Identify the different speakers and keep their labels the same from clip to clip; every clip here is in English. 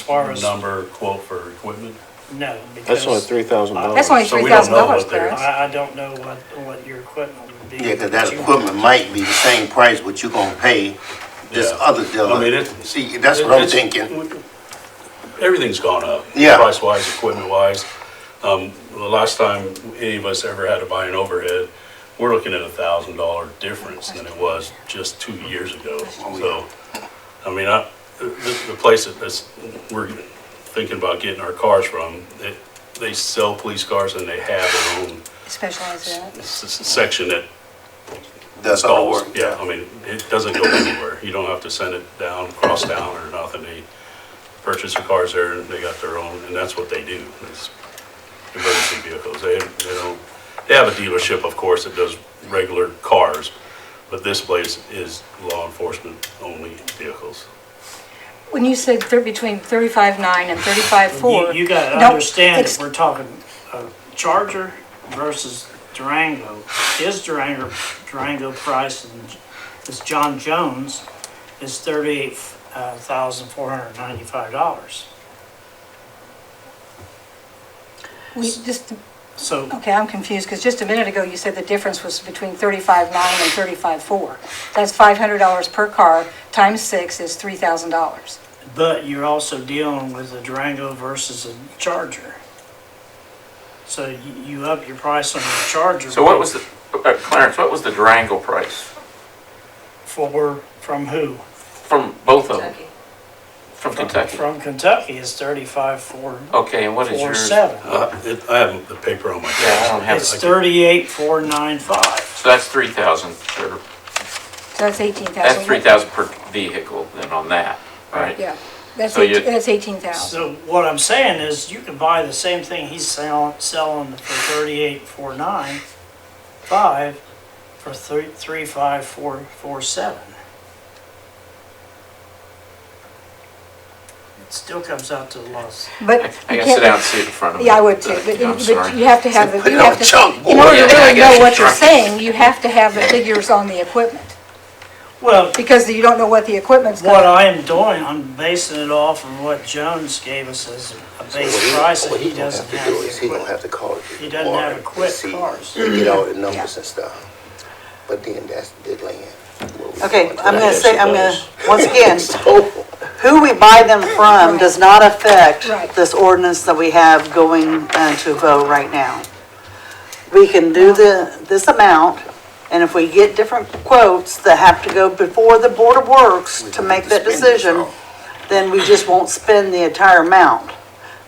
Speaker 1: far as,
Speaker 2: number quote for equipment?
Speaker 1: no, because.
Speaker 3: That's only three thousand dollars.
Speaker 4: That's only
Speaker 2: So
Speaker 4: three
Speaker 2: we don't
Speaker 4: thousand
Speaker 2: know
Speaker 4: dollars,
Speaker 2: what they're-
Speaker 4: Clarence.
Speaker 1: I, I don't know what, what your equipment would be.
Speaker 5: Yeah, 'cause
Speaker 1: but
Speaker 5: that
Speaker 1: you-
Speaker 5: equipment might be the same price what you gonna pay this
Speaker 2: Yeah.
Speaker 5: other dealer.
Speaker 2: I mean, it-
Speaker 5: See, that's what I'm
Speaker 2: It's-
Speaker 5: thinking.
Speaker 2: Everything's gone up.
Speaker 5: Yeah.
Speaker 2: Price wise, equipment wise. Um, the last time any of us ever had to buy an overhead, we're looking at a thousand dollar difference than it was just two years ago.
Speaker 5: Oh,
Speaker 2: So, I mean, I, the, the place that that's, we're thinking about getting our cars from, they, they sell police cars and they have their own
Speaker 4: Specialize that.
Speaker 2: s- s- section that
Speaker 5: That's all
Speaker 2: stalls.
Speaker 5: work.
Speaker 2: Yeah, I mean, it doesn't go anywhere. You don't have to send it down, cross town or nothing. They purchase the cars there and they got their own, and that's what they do, is emergency vehicles. They, they don't, they have a dealership, of course, that does regular cars, but this place is law enforcement only vehicles.
Speaker 4: When you said they're between thirty-five nine and thirty-five
Speaker 1: You,
Speaker 4: four.
Speaker 1: you gotta understand, if we're talking a Charger versus Durango, his Durango, Durango price and this John Jones is thirty-eight uh, thousand four hundred ninety-five dollars.
Speaker 4: We just,
Speaker 1: So
Speaker 4: okay, I'm confused, because just a minute ago, you said the difference was between thirty-five nine and thirty-five four. That's five hundred dollars per car, times six is three thousand dollars.
Speaker 1: But you're also dealing with a Durango versus a Charger. So you, you up your price on your Charger.
Speaker 6: So what was the, uh, Clarence, what was the Durango price
Speaker 1: For, from who?
Speaker 6: from both of them? From Kentucky?
Speaker 1: From Kentucky is thirty-five, four,
Speaker 6: Okay, and Oh, what is
Speaker 1: four,
Speaker 6: yours?
Speaker 1: seven.
Speaker 2: Uh, it- I have the paper on my
Speaker 6: Yeah, I
Speaker 2: desk.
Speaker 6: don't have,
Speaker 1: It's
Speaker 6: it.
Speaker 1: thirty-eight, four, nine, five.
Speaker 6: so that's three thousand per,
Speaker 4: So that's eighteen thousand.
Speaker 6: that's three thousand per vehicle then on that, right?
Speaker 4: Yeah, that's
Speaker 6: So you-
Speaker 4: eighteen, that's eighteen thousand.
Speaker 1: So what I'm saying is you can buy the same thing he's selling, selling for thirty-eight, four, nine, five, for three, three, five, four, four, seven. It still comes out to a loss.
Speaker 4: But
Speaker 6: I I
Speaker 4: you
Speaker 6: gotta
Speaker 4: can't-
Speaker 6: sit down and see it in front of me.
Speaker 4: Yeah, I would too, but,
Speaker 6: I'm
Speaker 4: but
Speaker 6: sorry.
Speaker 4: you have to have, the
Speaker 5: Put
Speaker 4: you
Speaker 5: it on
Speaker 4: have to,
Speaker 5: chalkboard.
Speaker 4: in order to
Speaker 6: Yeah, I
Speaker 4: really
Speaker 6: guess
Speaker 4: know what
Speaker 6: it's
Speaker 4: you're
Speaker 6: right.
Speaker 4: saying, you have to have the figures on the equipment,
Speaker 1: Well,
Speaker 4: because you don't know what the equipment's
Speaker 1: What
Speaker 4: gonna,
Speaker 1: I am doing, I'm basing it off of what Jones gave us as a
Speaker 5: What
Speaker 1: base
Speaker 5: he-
Speaker 1: price, and
Speaker 5: what
Speaker 1: he
Speaker 5: gonna have
Speaker 1: doesn't
Speaker 5: to
Speaker 1: have
Speaker 5: do is
Speaker 1: the
Speaker 5: He gonna have
Speaker 1: equipment.
Speaker 5: to call. the
Speaker 1: He doesn't have
Speaker 5: department and
Speaker 1: equip
Speaker 5: see-
Speaker 1: cars.
Speaker 5: Get all the numbers
Speaker 4: Yeah.
Speaker 5: and stuff. But then that's the land. where we
Speaker 7: Okay,
Speaker 5: going to.
Speaker 4: um,
Speaker 7: I'm gonna say, I'm gonna, once again,
Speaker 5: So,
Speaker 7: who we buy them from does not affect
Speaker 4: Right.
Speaker 7: this ordinance that we have going uh, to vote right now. We can do the, this amount, and if we get different quotes that have to go before the Board of Works to make that
Speaker 5: spend this
Speaker 7: decision,
Speaker 5: all.
Speaker 7: then we just won't spend the entire amount.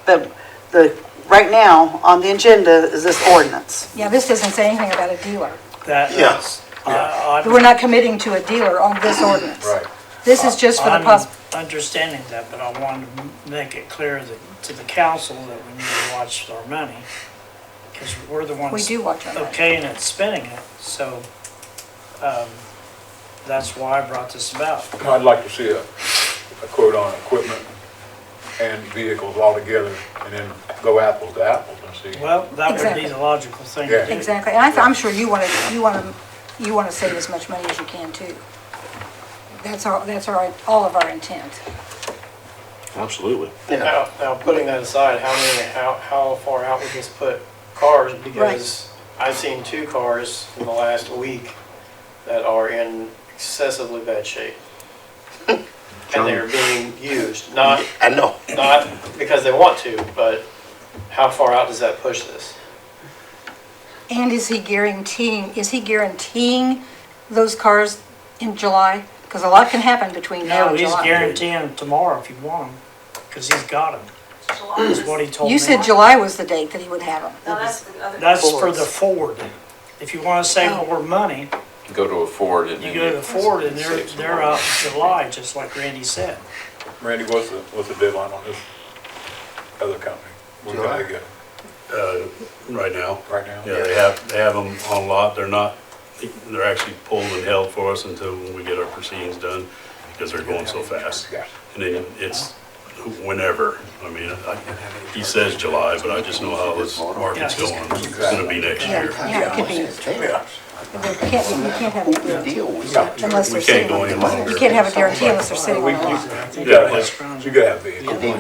Speaker 7: But the, right now, on the agenda is this ordinance.
Speaker 4: yeah, this doesn't say anything about a dealer.
Speaker 1: That is-
Speaker 5: Yes.
Speaker 1: I- I'm-
Speaker 4: We're not committing to a dealer on this ordinance.
Speaker 2: Right.
Speaker 4: This is just for the
Speaker 1: I'm
Speaker 4: poss,
Speaker 1: Understanding that, but I wanted to m- make it clear that, to the council that we need to watch our money, because we're the ones.
Speaker 4: we do watch our money.
Speaker 1: Okay, and it's spending it, so, um, that's why I brought this about.
Speaker 8: I'd like to see a, a quote on equipment and vehicles altogether, and then go apples to apples and see.
Speaker 1: Well, that would be
Speaker 4: Exactly.
Speaker 1: the logical thing
Speaker 8: Yeah.
Speaker 1: to do.
Speaker 4: Exactly, and I, th- I'm sure you wanna, you wanna, you wanna save as much money as you can too. That's our, that's our, all of our intent.
Speaker 3: Absolutely.
Speaker 9: Now, now putting that aside, how many, how, how far out would this put cars? Because I've seen two cars in the last week that are in excessively bad shape. And they're being used, not,
Speaker 5: I know.
Speaker 9: not because they want to, but how far out does that push this?
Speaker 4: And is he guaranteeing, is he guaranteeing those cars in July? Because a lot can happen between now
Speaker 1: No,
Speaker 4: and
Speaker 1: he's
Speaker 4: July.
Speaker 1: guaranteeing tomorrow if you want them, because he's got them. Is what he told me.
Speaker 4: You said July was the date that he would have them.
Speaker 1: That's for the Ford. If you want to
Speaker 4: Oh.
Speaker 1: save more money,
Speaker 6: Go to a Ford and
Speaker 1: you go
Speaker 6: then.
Speaker 1: to Ford and they're,
Speaker 6: save some
Speaker 1: they're
Speaker 6: money.
Speaker 1: out in July, just like Randy said.
Speaker 8: Randy, what's the, what's the deadline on this other company? We're
Speaker 5: July.
Speaker 8: gonna get it
Speaker 2: Uh, right now.
Speaker 8: right now?
Speaker 2: Yeah, they have, they have them on lot, they're not, they're actually pulled and held for us until we get our proceedings done, because they're going so fast.
Speaker 8: Gotcha.
Speaker 2: And then it's whenever, I mean, I- he says July, but I just know how this market's going, it's gonna be next
Speaker 4: Yeah,
Speaker 2: year.
Speaker 4: yeah, it could be, we can't, we can't have a guarantee
Speaker 5: Deal with
Speaker 4: unless
Speaker 2: We
Speaker 4: they're
Speaker 2: can't
Speaker 4: sitting
Speaker 2: go
Speaker 4: on
Speaker 2: any
Speaker 4: a
Speaker 2: longer.
Speaker 4: You can't have a guarantee unless they're sitting on a lot.
Speaker 8: You gotta have, you gotta have vehicles.